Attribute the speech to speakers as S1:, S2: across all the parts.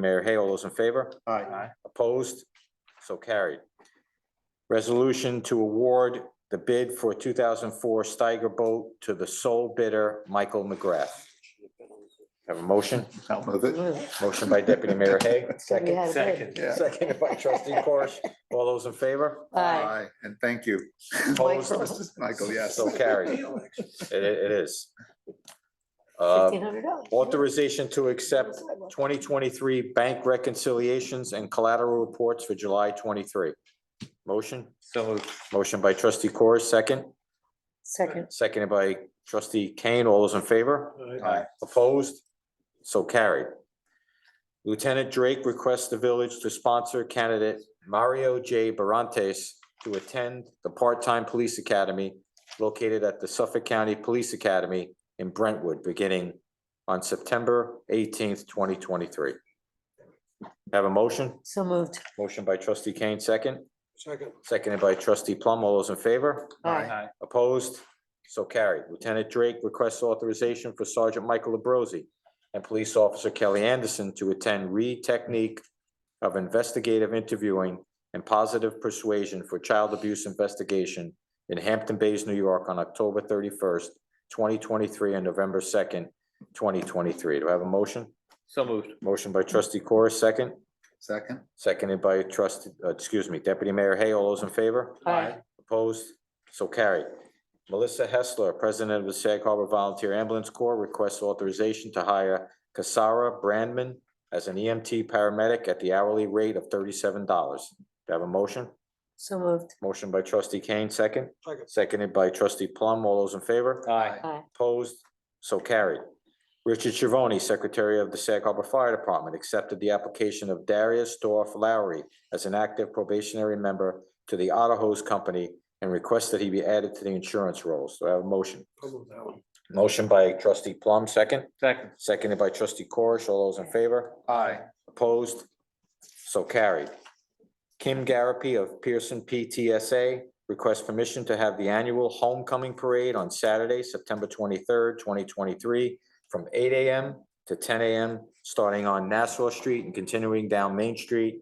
S1: Mayor Hay, all those in favor?
S2: Aye.
S1: Opposed? So carried. Resolution to award the bid for two thousand four Steiger boat to the sole bidder, Michael McGrath. Have a motion?
S2: I'll move it.
S1: Motion by Deputy Mayor Hay,
S3: We
S1: second.
S3: had a bid.
S2: Yeah.
S1: Second by Trustee Corish. All those in favor?
S3: Aye.
S2: And thank you.
S1: Opposed?
S2: Michael, yes.
S1: So carried. It, it is. Uh,
S3: Fifteen hundred dollars.
S1: authorization to accept twenty twenty-three bank reconciliations and collateral reports for July twenty-three. Motion?
S4: So moved.
S1: Motion by trustee Corr, second,
S3: Second,
S1: seconded by trustee Kane. All those in favor?
S2: Aye.
S1: Opposed? So carried. Lieutenant Drake requests the village to sponsor candidate Mario J. Barantes to attend the part-time police academy located at the Suffolk County Police Academy in Brentwood, beginning on September eighteenth, twenty twenty-three. Have a motion?
S3: so moved.
S1: Motion by trustee Kane, second,
S5: Second.
S1: seconded by trustee Plum. All those in favor?
S3: Aye.
S1: Opposed? So carried. Lieutenant Drake requests authorization for Sergeant Michael Labrosi and Police Officer Kelly Anderson to attend Reed Technique of Investigative Interviewing and Positive Persuasion for Child Abuse Investigation in Hampton Bays, New York, on October thirty-first, twenty twenty-three, and November second, twenty twenty-three. Do I have a motion?
S4: So moved.
S1: Motion by trustee Corr, second,
S2: Second,
S1: seconded by trustee, uh, excuse me, Deputy Mayor Hay. All those in favor?
S3: Aye.
S1: Opposed? So carried. Melissa Hessler, President of the Sag Harbor Volunteer Ambulance Corps, requests authorization to hire Casara Brandman as an EMT paramedic at the hourly rate of thirty-seven dollars. Do I have a motion?
S3: So moved.
S1: Motion by trustee Kane, second.
S5: Second.
S1: Seconded by trustee Plum. All those in favor?
S4: Aye.
S3: Aye.
S1: Opposed? So carried. Richard Chivoni, Secretary of the Sag Harbor Fire Department, accepted the application of Darius Dorf Lowry as an active probationary member to the Otter Hose Company and requests that he be added to the insurance rolls. Do I have a motion?
S5: I'll move that one.
S1: Motion by trustee Plum, second.
S4: Second.
S1: Seconded by trustee Corish. All those in favor?
S2: aye,
S1: Opposed? So carried. Kim Garapi of Pearson PTSA requests permission to have the annual homecoming parade on Saturday, September twenty-third, twenty twenty-three, from eight AM to ten AM, starting on Nassau Street and continuing down Main Street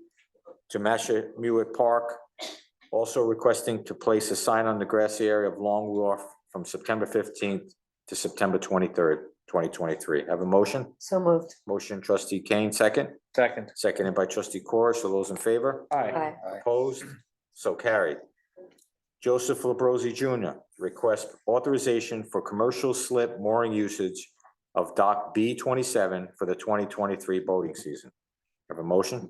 S1: to Mashemewett Park. Also requesting to place a sign on the grassy area of Long Wharf from September fifteenth to September twenty-third, twenty twenty-three. Have a motion?
S3: So moved.
S1: Motion trustee Kane, second.
S4: Second.
S1: Seconded by trustee Corish. All those in favor?
S3: Aye.
S1: Opposed? So carried. Joseph Labrosi Junior requests authorization for commercial slip mooring usage of dock B twenty-seven for the twenty twenty-three boating season. Have a motion?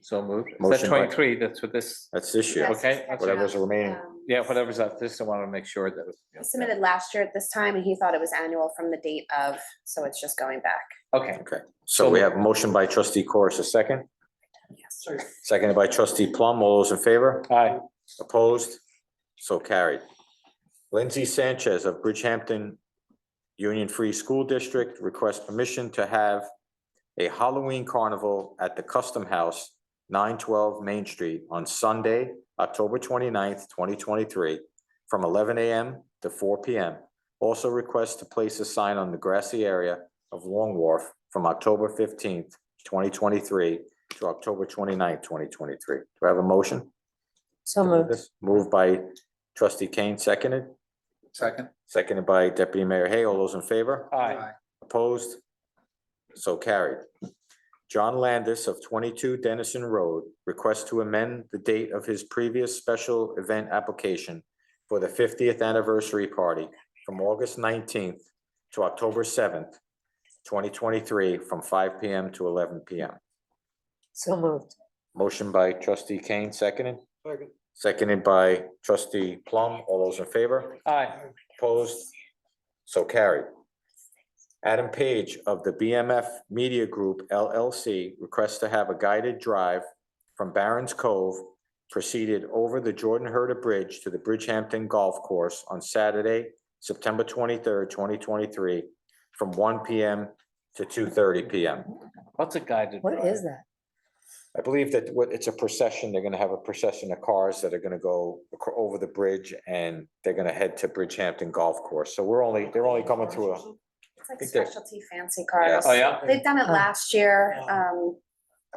S4: So moved. Is that
S1: Motion by-
S4: twenty-three? That's what this,
S1: That's this year.
S6: Yes.
S4: okay? that's-
S1: Whatever's remaining.
S6: Um,
S4: Yeah, whatever's up. This, I want to make sure that.
S6: He submitted last year at this time, and he thought it was annual from the date of, so it's just going back.
S4: Okay.
S1: Okay, so we have a motion by trustee Corish, a second,
S6: Yes.
S1: seconded by trustee Plum. All those in favor?
S4: Aye.
S1: Opposed? So carried. Lindsay Sanchez of Bridgehampton Union Free School District requests permission to have a Halloween carnival at the Custom House, nine twelve Main Street, on Sunday, October 29th, twenty-three, from eleven AM to four PM. Also requests to place a sign on the grassy area of Long Wharf from October fifteenth, twenty twenty-three to October 29th, twenty-three. Do I have a motion?
S3: So moved.
S1: Moved by trustee Kane, seconded,
S2: second,
S1: seconded by deputy mayor Hay. All those in favor?
S4: Aye.
S1: Opposed? So carried. John Landis of twenty-two Dennison Road requests to amend the date of his previous special event application for the fiftieth anniversary party from August nineteenth to October seventh, twenty twenty-three, from five P M to eleven P M.
S3: So moved.
S1: Motion by trustee Kane, seconded,
S5: Second.
S1: seconded by trustee Plum. All those in favor?
S4: Aye.
S1: Opposed? So carried. Adam Page of the BMF Media Group LLC requests to have a guided drive from Barron's Cove proceeded over the Jordan Herder Bridge to the Bridgehampton Golf Course on Saturday, September twenty-third, twenty twenty-three, from one P M to two thirty P M.
S4: What's a guided?
S3: What
S4: drive?
S3: is that?
S1: I believe that what, it's a procession, they're gonna have a procession of cars that are gonna go acro- over the bridge and they're gonna head to Bridgehampton Golf Course. So we're only, they're only coming through a
S6: It's like
S1: Big deal.
S6: specialty fancy cars.
S4: Oh, yeah?
S6: They've done it
S3: Oh.
S6: last year, um,